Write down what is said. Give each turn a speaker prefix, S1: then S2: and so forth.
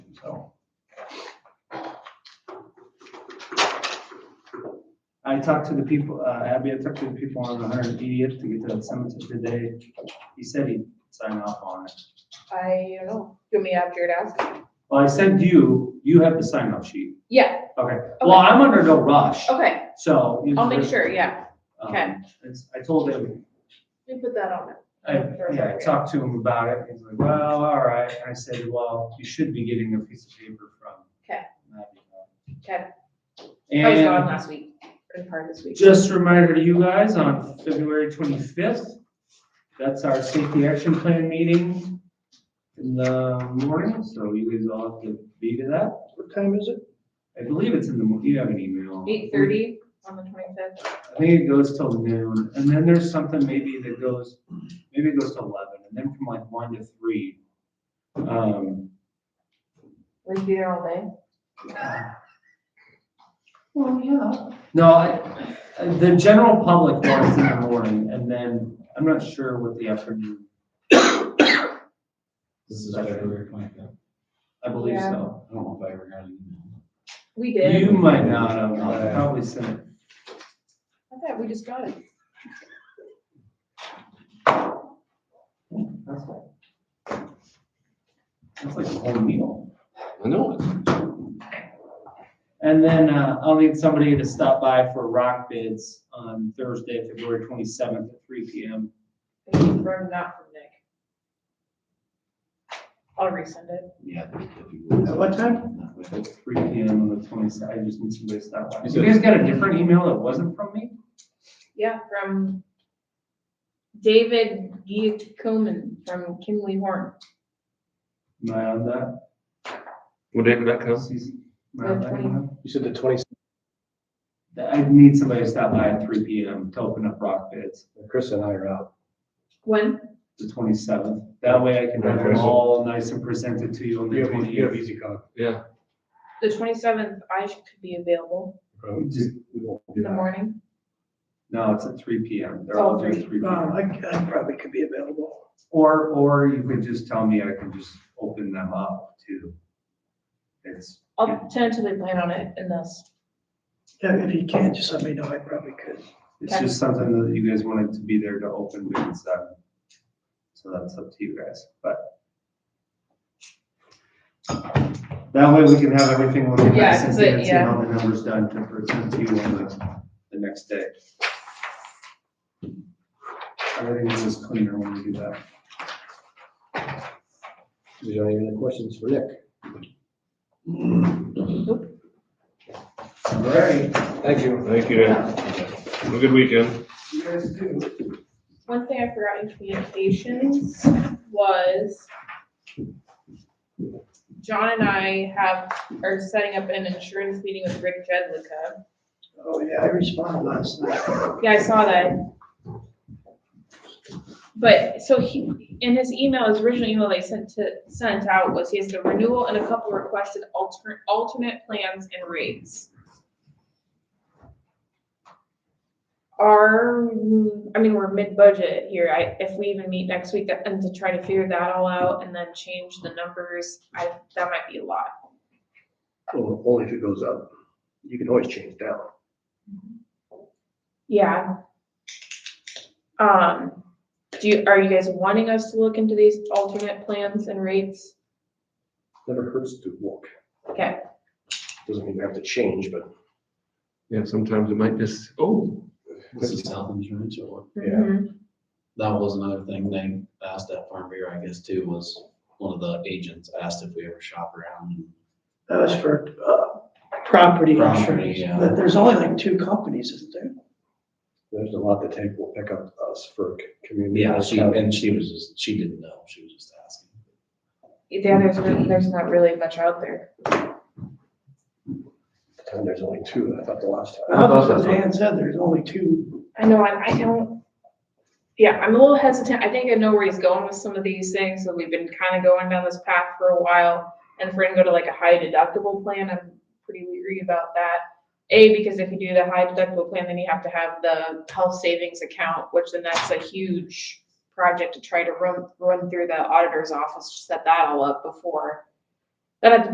S1: so.
S2: I talked to the people, uh, Abby, I talked to the people on the hundred eightieth to get to that cemetery today. He said he'd sign off on it.
S3: I don't know. Do me after your desk?
S2: Well, I sent you, you have the sign off sheet.
S3: Yeah,
S2: Okay, well, I'm under no rush,
S3: okay.
S2: so. you
S3: I'll make
S2: just-
S3: sure, yeah.
S2: um,
S3: okay.
S2: it's- I told him,
S3: We put that on it.
S2: I, yeah, I talked to him about it. He's like, well, all right. And I said, well, you should be getting a piece of paper from.
S3: Okay.
S2: Abby.
S3: Okay. I was gone
S2: And
S3: last week, in part of this week.
S2: just a reminder to you guys, on February twenty-fifth, that's our safety action plan meeting in the morning, so you guys all have to be to that.
S1: What time is it?
S2: I believe it's in the, mo- you have an email.
S3: Eight thirty on the twenty-fifth.
S2: I think it goes till noon, and then there's something maybe that goes, maybe it goes to eleven, and then from like one to three. Um,
S3: We can be there all day.
S2: Well, yeah. No, I- the general public wants in the morning, and then, I'm not sure what the afternoon,
S4: This is February twenty-fifth.
S2: I believe so.
S4: I don't know if I ever got an email.
S3: We
S2: You
S3: did.
S2: might not have, I probably sent it.
S3: I bet we just got it.
S2: That's like- That's like a whole meal.
S4: I know.
S2: And then uh, I'll need somebody to stop by for rock bids on Thursday, February twenty-seventh at three P M.
S3: From, not from Nick. I'll resend it.
S4: Yeah.
S1: At what time?
S2: At three P M on the twenty-seventh, I just need somebody to stop by.
S4: You
S2: You guys got a different email that wasn't from me?
S3: Yeah, from David Giacomin from Kimley Horn,
S2: Am I on that?
S5: What day did that come?
S2: Susie? Am I on that
S3: The
S2: email?
S1: You said the twenty,
S2: That- I need somebody to stop by at three P M to open up rock bids,
S1: Chris and I are out.
S3: When?
S2: the twenty-seventh. That way I can have them
S5: Okay.
S2: all nice and presented to you on the
S1: You have, you have
S2: twenty-eighth.
S1: easy con.
S5: Yeah.
S3: The twenty-seventh, I sh- could be available
S1: We just- we won't do
S3: in the
S1: that.
S3: morning.
S2: No, it's at three P M. They're
S3: Oh,
S2: all due at three P M.
S6: Um, I, I probably could be available.
S2: Or, or you could just tell me, I can just open them up to, it's,
S3: I'll tentatively plan on it in this.
S6: Yeah, if you can't, just let me know, I probably could.
S2: it's just something that you guys wanted to be there to open bids on. So that's up to you guys, but. That way we can have everything looking
S3: Yeah,
S2: nice and
S3: 'cause it-
S2: fancy and all the numbers done to present to you on the, the next day. Everything's just cleaner when we do that.
S1: We don't have any questions for Nick.
S2: All right.
S1: Thank you.
S5: Thank you. Have a good weekend.
S2: You guys do.
S3: One thing I forgot in communications was John and I have, are setting up an insurance meeting with Rick Jedlicka.
S6: Oh, yeah, I responded last night.
S3: Yeah, I saw that. But, so he, in his email, his original email they sent to, sent out was he has the renewal and a couple requested alternate, alternate plans and rates. Our, I mean, we're mid-budget here, I, if we even meet next week, and to try to figure that all out and then change the numbers, I, that might be a lot.
S1: Well, Only if it goes up. You can always change down.
S3: Yeah. Um, do you, are you guys wanting us to look into these alternate plans and rates?
S1: Never hurts to walk.
S3: Okay,
S1: Doesn't mean you have to change, but.
S5: Yeah, sometimes it might just, oh,
S4: This is health insurance or what?
S1: Yeah.
S3: Mhm.
S4: That was another thing they asked at Farm Bureau, I guess, too, was one of the agents asked if we ever shop around.
S6: That was for, uh, property
S4: Property,
S6: insurance,
S4: yeah.
S6: but there's only like two companies, isn't there?
S1: There's a lot that Tank will pick up us for community.
S4: Yeah, she, and she was just, she didn't know, she was just asking.
S3: Yeah, there's really, there's not really much out there.
S1: And there's only two, I thought the last time.
S6: Well, that's what Dan said, there's only two.
S3: I know, I, I don't, yeah, I'm a little hesitant, I think I know where he's going with some of these things, so we've been kind of going down this path for a while. And if we're gonna go to like a high deductible plan, I'm pretty weary about that. A, because if you do the high deductible plan, then you have to have the health savings account, which then that's a huge project to try to run, run through the auditor's office, to set that all up before. That'd have to be